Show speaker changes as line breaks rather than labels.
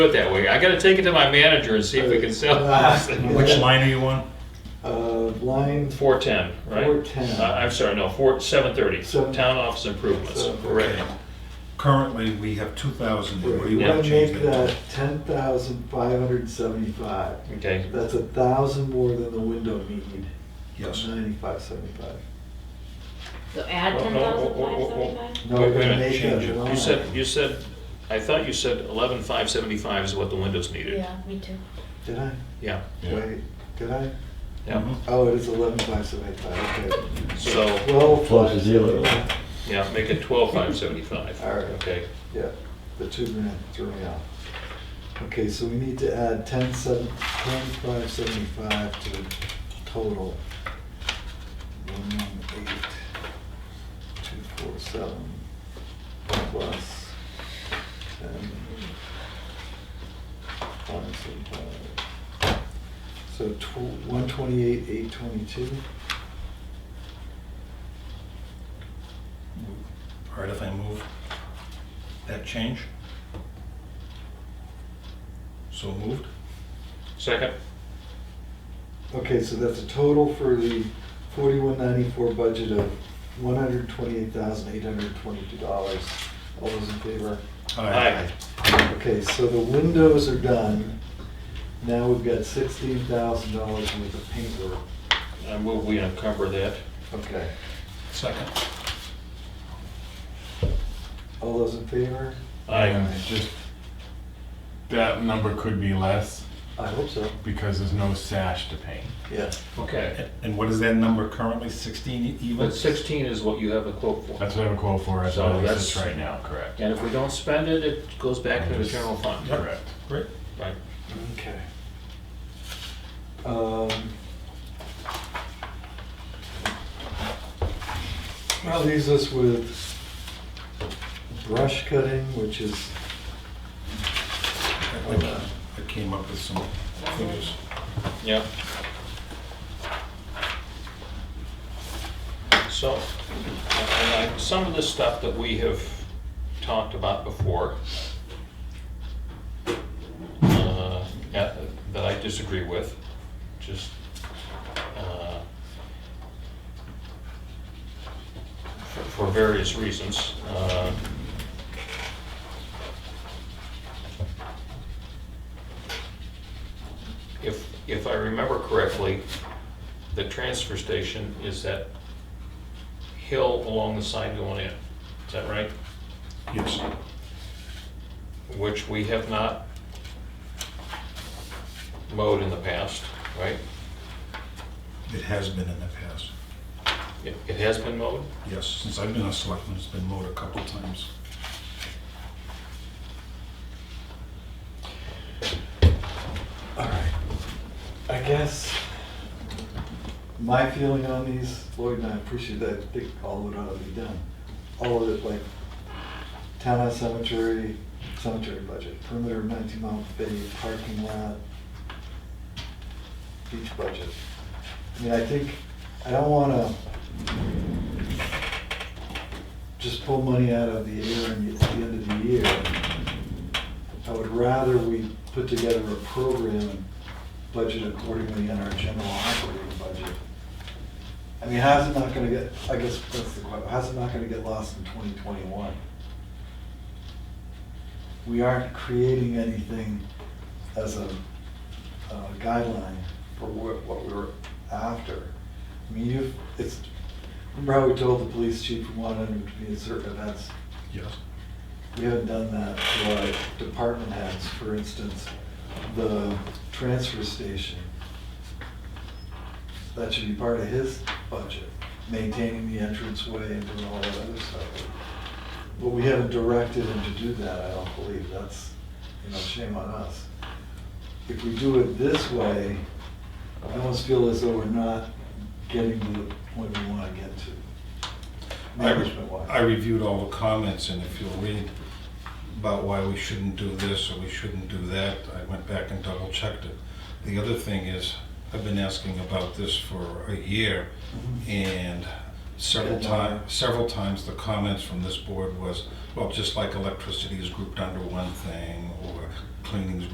do it that way. I gotta take it to my manager and see if we can sell this thing.
Which line are you on?
Uh, line
Four ten, right?
410.
Uh, I'm sorry, no, four, seven thirty,
Seven-
town office improvements,
Seven-
correct.
Currently, we have two thousand,
We're
what do you
gonna
want to change
make
that
that
to?
ten thousand five hundred seventy-five.
Okay,
That's a thousand more than the window need.
Yes,
Ninety-five seventy-five.
So add
Oh,
ten
no, oh,
thousand
oh,
five
oh, oh.
seventy-five?
No,
Wait, wait
we're
a
gonna
minute,
make
change
that
it. You
you
line.
said, you said, I thought you said eleven five seventy-five is what the windows needed.
Yeah, me too.
Did I?
Yeah,
Yeah.
Wait, did I?
yeah,
Mhm.
Oh, it is eleven five seventy-five, okay.
so,
Twelve.
Plus the zero.
yeah, make it twelve five seventy-five.
All right.
Okay,
Yeah, the two grand threw me off. Okay, so we need to add ten seven, ten five seventy-five to the total. One one eight, two four seven, plus ten, five seventy-five. So tw- one twenty-eight, eight twenty-two,
all right, if I move that change. So moved,
second,
okay, so that's a total for the forty-one ninety-four budget of one hundred twenty-eight thousand, eight hundred twenty-two dollars. All those in favor?
aye,
Okay, so the windows are done. Now we've got sixteen thousand dollars worth of paintwork.
I move we uncover that.
Okay.
second,
All those in favor?
I,
And just, that number could be less
I hope so.
because there's no sash to paint.
Yeah.
okay,
and what is that number currently, sixteen even?
but sixteen is what you have a quote for.
That's what I have a quote for, that's
So
what it
that's-
is right now, correct?
And if we don't spend it, it goes back to the
Just-
general fund.
Correct.
Great,
Right.
Okay. Um. That leaves us with brush cutting, which is,
I think I came up with some figures.
Yeah. So, and I, some of the stuff that we have talked about before, uh, at- that I disagree with, just, uh, for for various reasons. uh, If, if I remember correctly, the transfer station is that hill along the side going in, is that right?
Yes,
Which we have not mowed in the past, right?
it has been in the past,
It, it has been mowed?
yes, since I've been a selectman, it's been mowed a couple times.
all right. I guess my feeling on these, Lloyd and I appreciate that, I think all of it ought to be done. All of it, like townhouse cemetery, cemetery budget, perimeter of nineteen mile bay, parking lot, beach budget. I mean, I think, I don't wanna just pull money out of the air and it's the end of the year. I would rather we put together a program and budget accordingly in our general operating budget. I mean, how's it not gonna get, I guess that's the question, how's it not gonna get lost in twenty twenty-one? We aren't creating anything as a uh, guideline for what, what we were after. I mean, you've, it's, remember how we told the police chief we wanted him to be at certain events?
Yes.
We haven't done that to our department heads, for instance, the transfer station. That should be part of his budget, maintaining the entranceway and doing all that other stuff. But we haven't directed him to do that, I don't believe, that's, you know, shame on us. If we do it this way, I almost feel as though we're not getting to the point we wanna get to.
I re-
Management wise.
I reviewed all the comments, and if you'll read about why we shouldn't do this or we shouldn't do that, I went back and double checked it. The
Mm-hmm.
other thing is, I've been asking about this for a year, and Several
Yeah.
times, several times the comments from this board was, well, just like electricity is grouped under one thing, or cleaning is